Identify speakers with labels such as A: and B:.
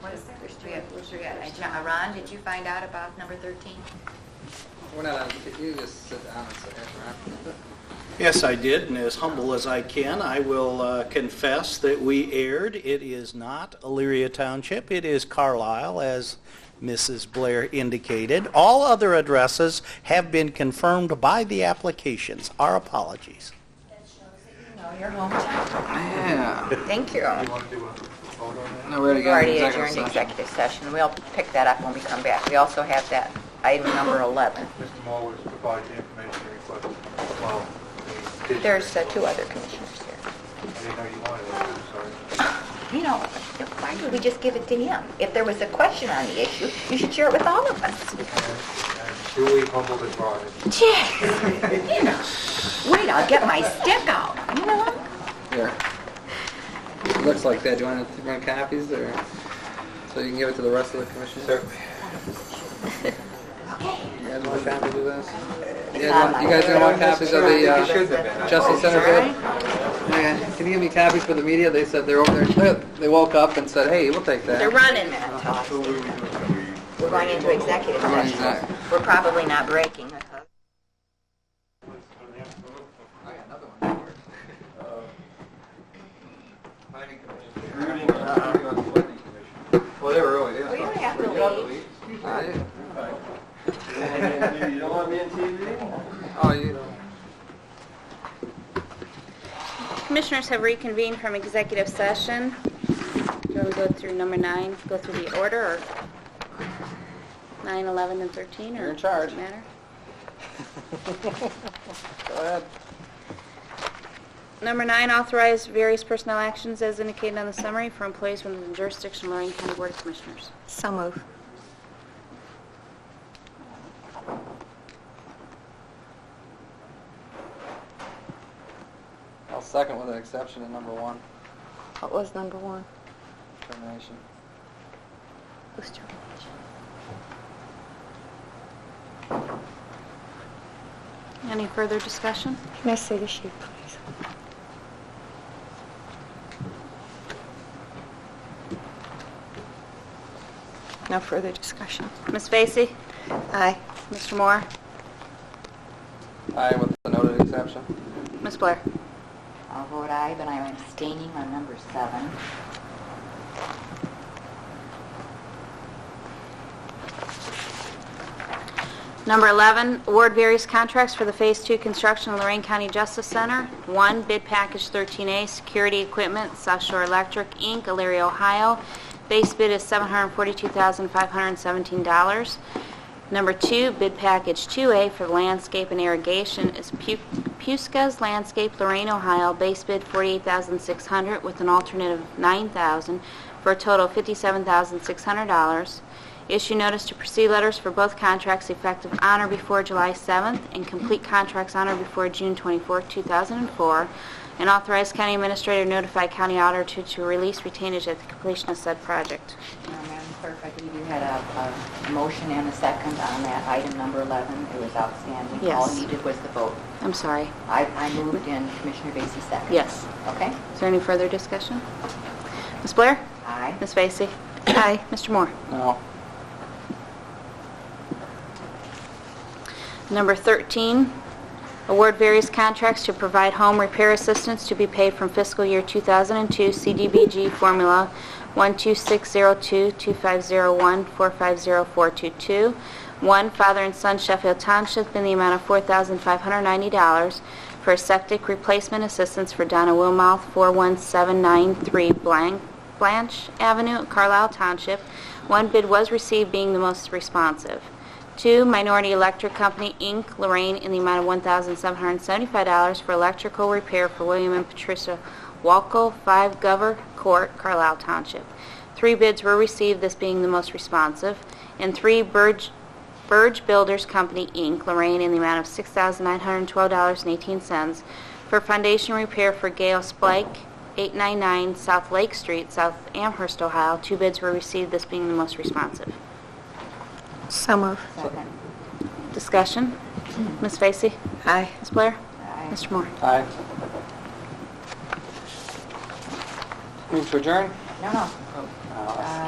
A: What is that? Forget- I cha- Ron, did you find out about number 13?
B: We're not on, could you uh, just sit down and say that, Ron?
C: Yes, I did, and as humble as I can, I will uh, confess that we erred. It is not Elyria Township, it is Carlisle, as Mrs. Blair indicated. All other addresses have been confirmed by the applications. Our apologies.
A: No, your hometown.
B: Yeah,
A: Thank you.
B: no, we already
A: We've
B: got
A: already
B: an
A: adjourned
B: executive session.
A: executive session. We'll pick that up when we come back. We also have that item number 11.
D: Mr. Moore was provided the information requested. Well, he did-
A: There's uh, two other commissioners here.
D: I didn't know you wanted it, I'm sorry.
A: You know, why did we just give it to him? If there was a question on the issue, you should share it with all of us.
D: And- And duly humbled and brought it.
A: Jeez, you know. Wait, I'll get my stick out, you know?
B: Here. It Looks like that, do you want to run copies, or, so you can give it to the rest of the commissioners?
D: Certainly.
B: You guys want a copy of this? You guys
A: not
B: want- you guys gonna want copies of the
D: You should
B: uh,
D: have been.
B: Justice Center bid? Yeah, can you give me copies for the media? They said they're over there, they woke up and said, hey, we'll take that.
A: They're running that talk. We're going into executive
B: We're going
A: session.
B: exec.
A: We're probably not breaking. I hope.
D: Uh, Planning commission. planning commission. Well, they were early.
A: We don't have to leave.
B: Ah, you-
D: You don't want me on TV?
B: Oh, you,
E: Commissioners have reconvened from executive session. Shall we go through number nine, go through the order, or nine, 11, and 13?
B: You're in charge.
E: Or does it matter?
B: go ahead.
E: Number nine, authorize various personnel actions as indicated on the summary for employees within the jurisdiction of Lorraine County Board of Commissioners.
A: So move.
B: I'll second with an exception to number one,
A: What was number one?
B: termination.
A: Who's termination?
E: Any further discussion?
F: Can I see the sheet, please? No further discussion.
E: Ms. Vacy?
F: Aye.
E: Mr. Moore?
B: Aye, with the noted exception.
E: Ms. Blair?
A: I'll vote aye, but I'm abstaining on number seven.
E: Number 11, award various contracts for the Phase 2 construction of Lorraine County Justice Center. One, bid package 13A, security equipment, South Shore Electric, Inc., Elyria, Ohio. Base bid is $742,517. Number two, bid package 2A for landscape and irrigation is Pu- Puska's Landscape, Lorraine, Ohio. Base bid 48600 with an alternate of 9000 for a total of $57,600. Issue notice to proceed letters for both contracts effective on or before July 7th and complete contracts on or before June 24, 2004, and authorize county administrator to notify county auditor to- to release retainage at the completion of said project.
A: Uh, Madam Clerk, I believe you had a, a motion and a second on that item number 11. It was outstanding. All
E: Yes.
A: you did was the vote.
E: I'm sorry.
A: I, I moved and Commissioner Vacy seconded.
E: Yes.
A: Okay?
E: Is there any further discussion? Ms. Blair?
A: Aye.
E: Ms. Vacy? Aye. Mr. Moore?
B: No.
E: Number 13, award various contracts to provide home repair assistance to be paid from fiscal year 2002 CDBG formula 12602-2501-450422. One, father and son Sheffield Township in the amount of $4,590 for septic replacement assistance for Donna Wilmouth, 41793 Blank- Blanche Avenue, Carlisle Township. One bid was received, being the most responsive. Two, Minority Electric Company, Inc., Lorraine, in the amount of $1,775 for electrical repair for William and Patricia Walco, 5 Gover Court, Carlisle Township. Three bids were received, this being the most responsive. And three, Burge Burge Builders Company, Inc., Lorraine, in the amount of $6,912.18 for foundation repair for Gale Splike, 899 South Lake Street, South Amherst, Ohio. Two bids were received, this being the most responsive.
F: So move.
A: Second.
E: Discussion? Ms. Vacy?
F: Aye.
E: Ms. Blair?
A: Aye.
E: Mr. Moore?
B: Aye. Move to adjourn?
A: No, no.